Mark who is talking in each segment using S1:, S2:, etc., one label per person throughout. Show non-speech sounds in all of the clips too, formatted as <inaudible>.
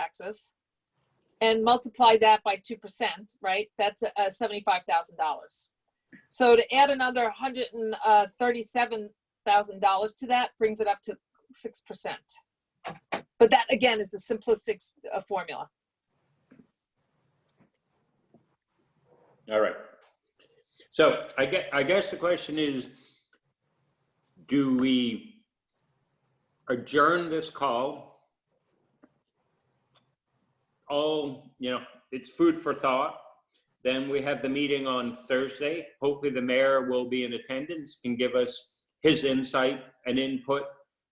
S1: taxes and multiply that by 2%, right? That's uh, $75,000. So to add another uh, $137,000 to that brings it up to 6%. But that again is the simplistic uh, formula.
S2: All right. So I get, I guess the question is, do we adjourn this call? All, you know, it's food for thought. Then we have the meeting on Thursday. Hopefully the mayor will be in attendance, can give us his insight and input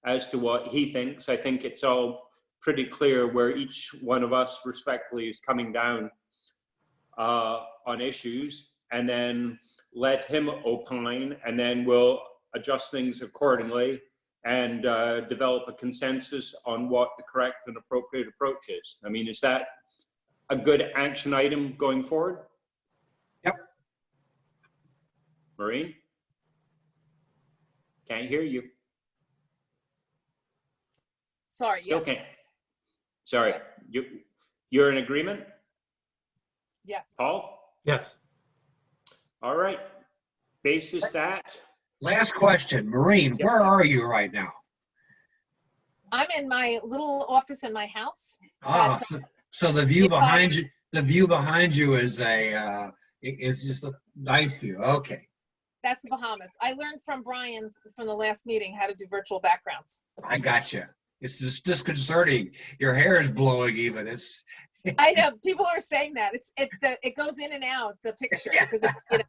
S2: as to what he thinks. I think it's all pretty clear where each one of us respectfully is coming down uh, on issues and then let him opine and then we'll adjust things accordingly and uh, develop a consensus on what the correct and appropriate approach is. I mean, is that a good action item going forward?
S3: Yep.
S2: Maureen? Can't hear you.
S1: Sorry,
S2: Still
S1: yes,
S2: can't. Sorry, you, you're in agreement,
S1: yes.
S2: Paul?
S4: Yes.
S2: All right. Basis that.
S3: Last question, Maureen,
S2: Yeah.
S3: where are you right now?
S1: I'm in my little office in my house.
S3: Ah, so- so the view
S1: If I-
S3: behind you, the view behind you is a, uh, i- is just a nice view, okay.
S1: That's the Bahamas. I learned from Brian's from the last meeting how to do virtual backgrounds.
S3: I got you. It's just disconcerting. Your hair is blowing even. It's,
S1: I know people are saying that it's it the, it goes in and out the picture
S3: Yeah.
S1: because of, you know,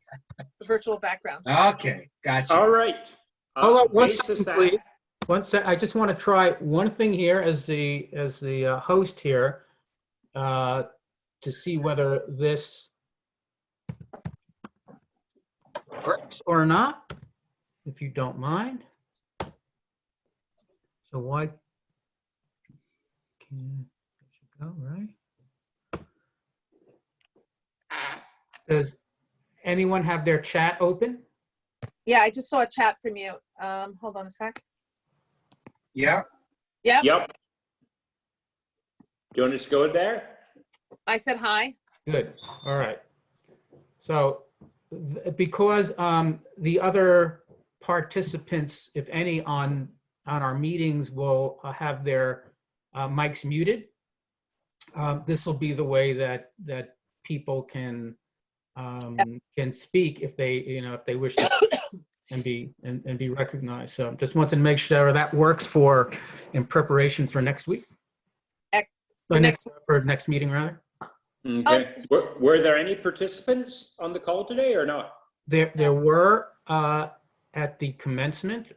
S1: the virtual background.
S3: okay, got you.
S2: All right. Uh,
S4: Hold on one
S2: basis
S4: second,
S2: that-
S4: please. One sec, I just want to try one thing here as the, as the uh, host here, uh, to see whether this works or not, if you don't mind. So why? can it should Go, right? Does anyone have their chat open?
S1: Yeah, I just saw a chat from you. Um, hold on a sec.
S3: Yeah,
S1: Yep,
S2: Yep. Do you want us to go there?
S1: I said hi.
S4: Good, all right. So th- because um, the other participants, if any, on, on our meetings will uh, have their uh, mics muted, um, this will be the way that, that people can, um, can speak if they, you know, if they wish to <coughs> and be, and and be recognized. So just wanted to make sure that works for, in preparation for next week.
S1: Ec-
S4: For
S1: for
S4: next, for next meeting, rather.
S1: Oh,
S2: Okay. Were, were there any participants on the call today or not?
S4: There, there were, uh, at the commencement,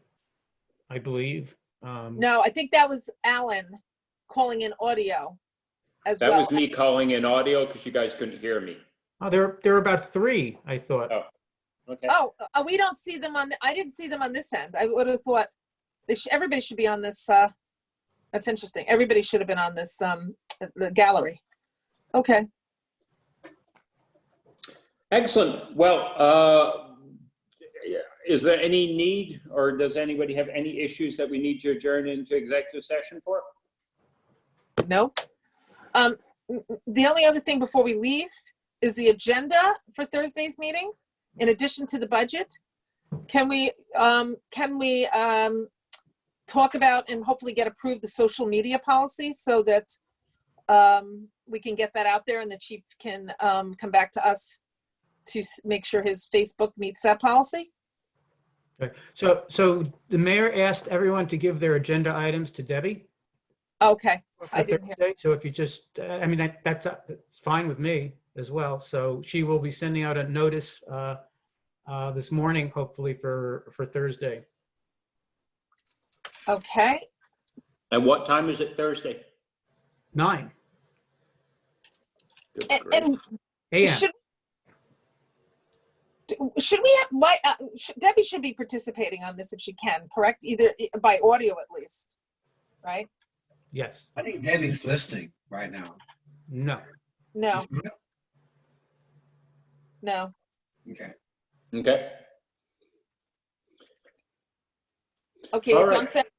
S4: I believe. um,
S1: No, I think that was Alan calling in audio as
S2: That
S1: well.
S2: was me calling in audio because you guys couldn't hear me.
S4: Oh, there, there were about three, I thought.
S2: Oh. Okay.
S1: Oh, uh, we don't see them on. The, I didn't see them on this end. I would have thought they sh- everybody should be on this. Uh, that's interesting. Everybody should have been on this um, the gallery. Okay.
S2: Excellent. Well, uh, is there any need or does anybody have any issues that we need to adjourn into executive session for?
S1: No. Um, m- m- the only other thing before we leave is the agenda for Thursday's meeting. In addition to the budget, can we um, can we um, talk about and hopefully get approved the social media policy so that um, we can get that out there and the chief can um, come back to us to s- make sure his Facebook meets that policy.
S4: Okay. So, so the mayor asked everyone to give their agenda items to Debbie.
S1: Okay. I
S4: for
S1: didn't hear.
S4: Thursday. So if you just, uh, I mean, that- that's, uh, that's fine with me as well. So she will be sending out a notice, uh, uh, this morning, hopefully for, for Thursday.
S1: Okay.
S2: And what time is it Thursday?
S4: Nine
S2: Good
S1: And,
S2: grief.
S1: and
S4: AM.
S1: Should, D- should we have, why, uh, sh- Debbie should be participating on this if she can, correct? Either i- by audio at least, right?
S4: Yes.
S3: I think Debbie's listening right now.
S4: No.
S1: No, no.
S3: Okay.
S2: Okay.
S1: Okay,
S2: All
S1: so I'm
S2: right.
S1: sending,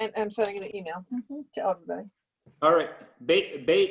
S1: and I'm sending an email mm-hmm, to everybody.
S2: All right, ba- ba-